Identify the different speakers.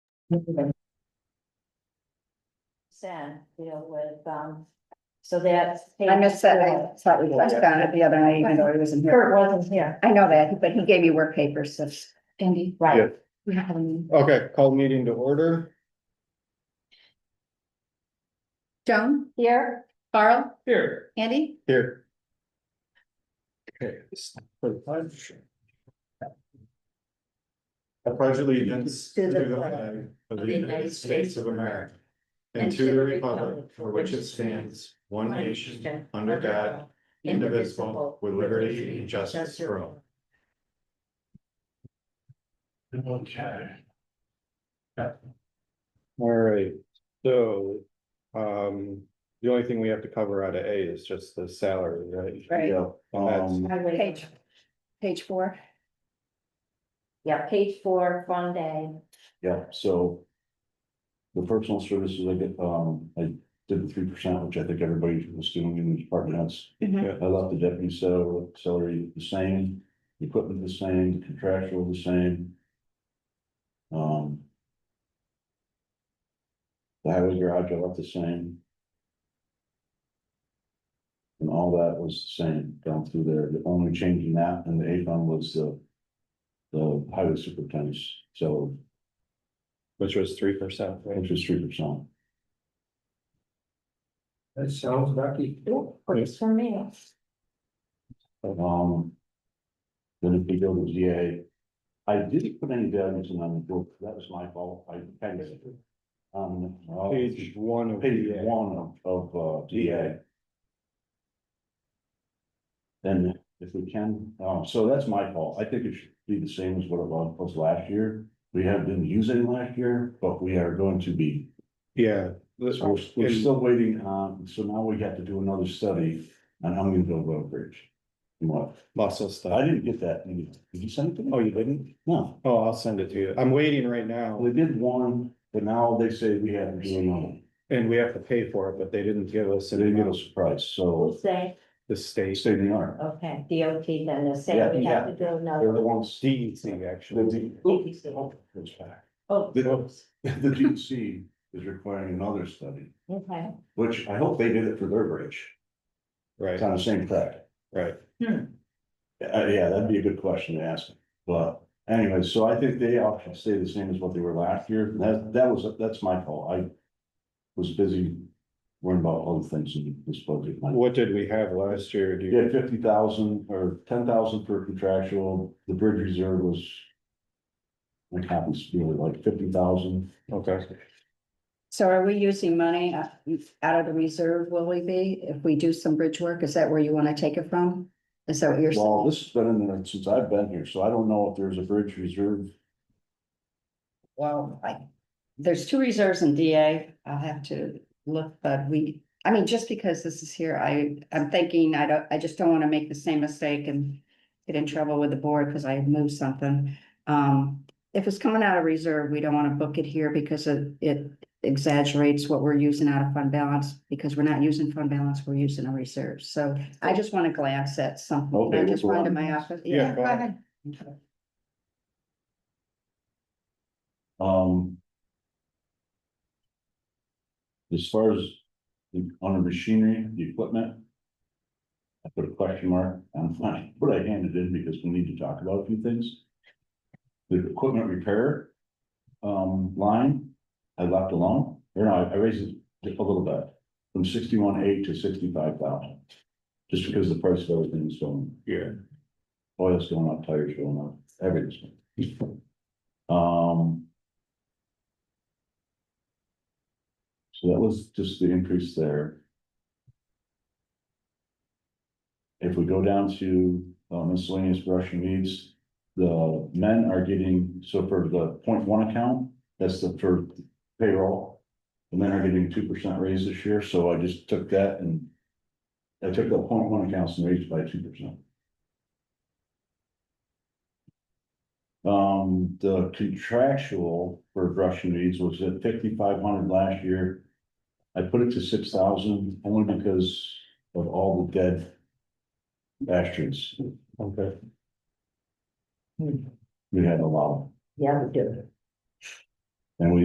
Speaker 1: Send, you know, with, um, so that's.
Speaker 2: I missed that, I thought we touched on it the other night, even though I wasn't here.
Speaker 1: Kurt wasn't here,
Speaker 2: I know that, but he gave me work papers, so. Andy.
Speaker 1: right?
Speaker 2: We have any.
Speaker 3: Okay, call meeting to order.
Speaker 2: Joan,
Speaker 1: Here,
Speaker 2: Carl,
Speaker 3: Here.
Speaker 2: Andy,
Speaker 3: Here. Okay. this- for the pledge. I pledge allegiance to the flag of the United States of America and to the republic for which it stands, one nation, under God, indivisible, with liberty and justice for all. Okay. All right, so, um, the only thing we have to cover out of A is just the salary, right?
Speaker 2: Right.
Speaker 4: Yeah,
Speaker 3: That's-
Speaker 4: um,
Speaker 1: highway-
Speaker 2: page, page four.
Speaker 1: Yeah, page four, fund day,
Speaker 4: yeah, so. The personal services, I get, um, I did the three percent, which I think everybody was doing in the department heads.
Speaker 2: Mhm.
Speaker 4: I left the deputy sal- salary the same, the equipment the same, contractual the same. Um. The highway garage, I left the same. And all that was the same down through there, the only change in that and the A fund was the. The highway superintendent's, so
Speaker 3: Which was three percent, right?
Speaker 4: interest three percent.
Speaker 5: That sounds lucky.
Speaker 1: Ooh, works for me,
Speaker 4: Um. Then if we go to DA, I didn't put any values in on the book, that was my fault, I kind of. Um, uh,
Speaker 3: Page one of.
Speaker 4: page
Speaker 3: the-
Speaker 4: one of, of, uh, DA. Then if we can, um, so that's my fault, I think it should be the same as what it was was last year. We have didn't use any last year, but we are going to be
Speaker 3: Yeah. this-
Speaker 4: so we're- we're still waiting on, so now we have to do another study on Huntington Road Bridge. What,
Speaker 3: Muscle
Speaker 4: I
Speaker 3: stuff.
Speaker 4: didn't get that, email. did you send it to me?
Speaker 3: Oh, you didn't?
Speaker 4: No,
Speaker 3: Oh, I'll send it to you. I'm waiting right now
Speaker 4: they did one, but now they say we have to do another,
Speaker 3: and we have to pay for it, but they didn't give us
Speaker 4: so they give
Speaker 3: an-
Speaker 4: us a price,
Speaker 1: we'll
Speaker 4: so
Speaker 1: say,
Speaker 3: the state.
Speaker 4: state of the art.
Speaker 1: okay, DOT then, the same,
Speaker 4: Yeah,
Speaker 1: we have
Speaker 4: yeah.
Speaker 1: to do
Speaker 4: They're
Speaker 1: another.
Speaker 4: the ones.
Speaker 3: DEC
Speaker 4: The
Speaker 3: E actually.
Speaker 4: D- oh, it's back.
Speaker 1: Oh,
Speaker 4: The D E C is requiring another study,
Speaker 1: okay,
Speaker 4: which I hope they did it for their bridge, it's
Speaker 3: Right,
Speaker 4: on the same track.
Speaker 3: right.
Speaker 4: Uh, yeah, that'd be a good question to ask, but anyway, so I think they all should stay the same as what they were last year, that, that was, that's my fault, I. Was busy worrying about other things in this budget.
Speaker 3: What did we have last year? Do
Speaker 4: You
Speaker 3: you,
Speaker 4: had fifty thousand or ten thousand for contractual, the bridge reserve was. Like happens to be like fifty thousand,
Speaker 3: okay,
Speaker 2: So are we using money uh, out of the reserve, will we be, if we do some bridge work, is that where you wanna take it from? Is that what you're
Speaker 4: well,
Speaker 2: saying?
Speaker 4: this has been in there since I've been here, so I don't know if there's a bridge reserve.
Speaker 2: Well, I, there's two reserves in DA, I'll have to look, but we, I mean, just because this is here, I, I'm thinking, I don't, I just don't wanna make the same mistake and. Get in trouble with the board, cause I moved something, um, if it's coming out of reserve, we don't wanna book it here because it, it exaggerates what we're using out of fund balance. Because we're not using fund balance, we're using a reserve, so I just wanna glance at something,
Speaker 4: Okay,
Speaker 2: I
Speaker 4: we'll
Speaker 2: just
Speaker 4: go
Speaker 2: run to
Speaker 4: on.
Speaker 2: my office,
Speaker 3: Yeah,
Speaker 2: yeah.
Speaker 3: Oh, go ahead.
Speaker 4: Um. As far as the, on the machinery, the equipment. I put a question mark on mine, but I handed in because we need to talk about a few things. The equipment repair, um, line, I left alone, or no, I raised it just a little bit. From sixty-one eight to sixty-five thousand. Just because the price of everything is going,
Speaker 3: yeah.
Speaker 4: oil's going up, tires going up, everything's. going up. Um. So that was just the increase there. If we go down to uh, miscellaneous brush and weeds, the men are getting, so for the point one account, that's the for payroll. The men are getting two percent raise this year, so I just took that and I took the point one accounts and raised by two percent. Um, the contractual for brush and weeds was at fifty-five hundred last year. I put it to six thousand only because of all the dead bastards.
Speaker 3: Okay.
Speaker 4: We had a lot.
Speaker 1: yeah, we do,